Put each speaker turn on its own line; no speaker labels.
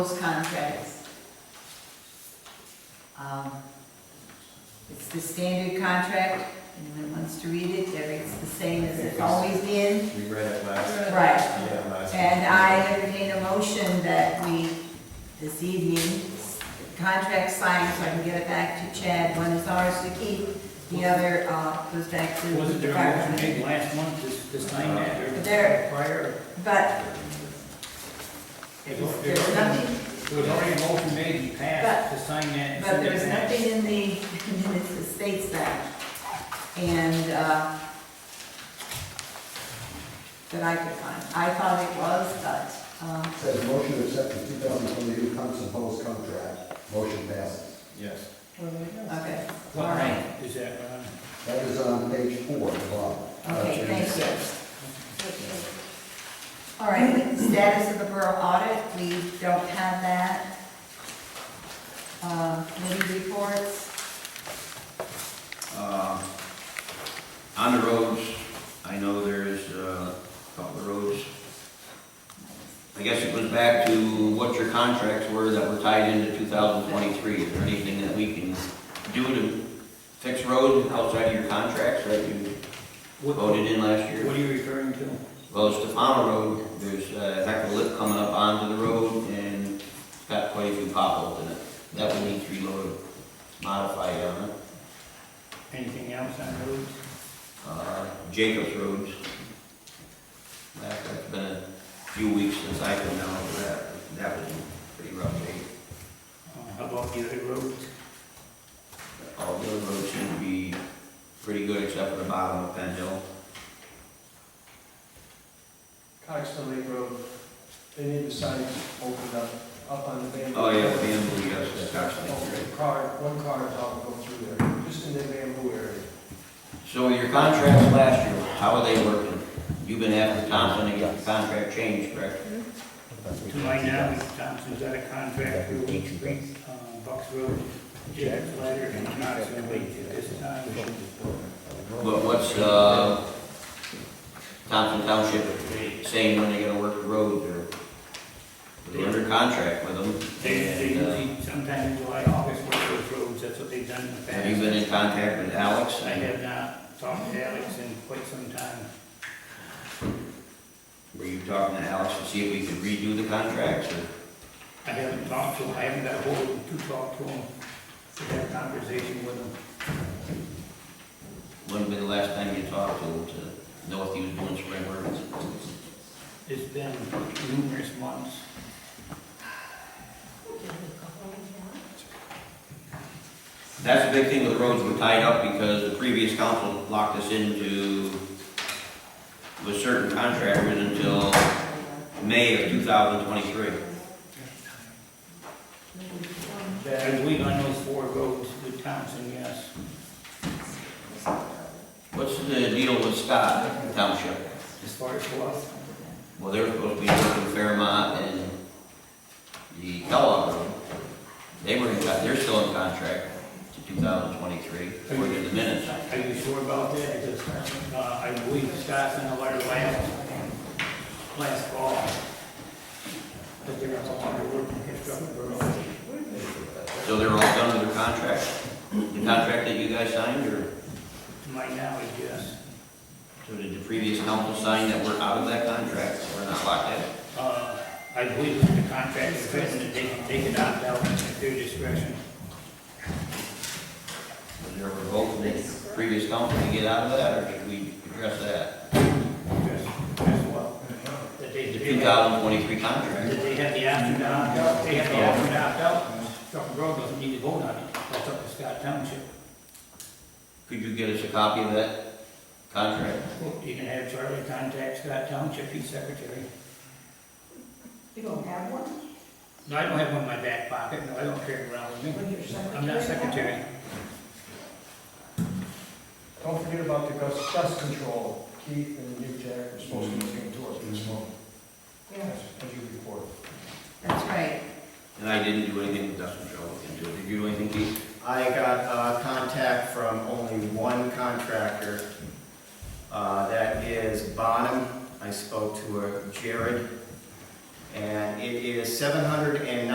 those contracts. Um, It's the standard contract, anyone wants to read it, There it's the same as it's always been.
We read it last,
Right,
yeah, last.
and I entertain a motion that we, this evening, contract signed, so I can get it back to Chad, one is ours to keep, the other uh, goes back to
Was
the
it there a motion made
department.
last month, this, this thing that, or?
There.
Prior?
But
It was there
there's nothing
was already a motion made, and passed, this thing that.
But there's nothing in the, in the states that, and, uh, that I could find. I thought it was, but, um,
Says motion to accept the 2022 Thompson Post contract. Motion passes.
Yes.
okay, all
What
right.
line is that, uh,
That is on page four, at the bottom. Uh,
Okay, thank you. All right, status of the borough audit, we don't have that. Uh, committee reports,
Uh, On the roads, I know there's uh, a couple of roads. I guess it goes back to what your contracts were that were tied into 2023. Is there anything that we can do to fix roads outside of your contracts that you
what,
voted in last year?
what are you referring to?
Well, Stefano Road, there's uh, a heck of a lip coming up onto the road and it's got quite a few potholes in it. That would need to be loaded, modified on it.
Anything else on roads?
uh, Jacobs Roads. That- That's been a few weeks since I can down over that, that was a pretty rough day.
Uh, How about the other roads?
All the other roads seem to be pretty good except for the bottom of Penn Hill.
Coxton Lake Road, they need the signs opened up, up on the bamboo.
Oh, yeah, Bamboo, yes, that's actually great.
Oh, Car, one car is all going through there, just in the bamboo area.
So your contracts last year, how are they working? You've been after Thompson to get the contract changed, correct?
To my knowledge, Thompson's out of contract for Peach Creek, uh, Bucks Road, Jack Ladder, and Knoxville Beach at this time.
But what's, uh, Thompson Township saying when they're gonna work the roads or? They're under contract with them.
They, they
and, uh,
usually sometime in July, August, work those roads, that's what they've done in the past.
Have you been in contact with Alex?
I have not talked to Alex in quite some time.
Were you talking to Alex to see if we could redo the contracts? or-
I haven't talked to him, I haven't got hold of him to talk to him, to have a conversation with him.
When was the last time you talked to him to know if he was doing spring work?
It's been numerous months.
That's the big thing with the roads, we're tied up because the previous council locked us into with certain contractors until May of two thousand twenty-three.
I believe on those four roads with Thompson, yes.
What's the deal with Scott Township?
As far as what?
Well, they're supposed to be working Fairmont and the Kellogg Road. They were in, con- they're still in contract to two thousand twenty-three, according to the minutes.
Are you sure about that? Because, uh, I believe Scott sent a letter last, last fall. That they're no longer working construction roads.
So they're all done with their contract? The contract that you guys signed, or
To my knowledge, yes.
so did the previous council sign that we're out of that contract, so we're not locked in?
Uh, I believe that the contract is written that they can take it out now at their discretion.
Was there a vote from the previous council to get out of that, or did we address that?
Yes, yes, well, That they,
The
they
two
have,
thousand twenty-three contract?
that they have the option to opt out, they have the option to opt out. Truck Road doesn't need to vote on it, that's up to Scott Township.
Could you get us a copy of that contract?
Well, You can have Charlie contact Scott Township, he's secretary.
You don't have one?
No, I don't have one in my back pocket, no, I don't carry it around with me.
When you're secretary?
I'm not secretary.
Don't forget about the dust, dust control, Keith and Nick Jack are supposed to be taking tours this month,
Yeah.
as as you report.
that's right.
And I didn't do anything with dust control, didn't do it. Did you do anything, Keith?
I got uh, contact from only one contractor. uh, That is Bonham. I spoke to her, Jared. And it is seven hundred and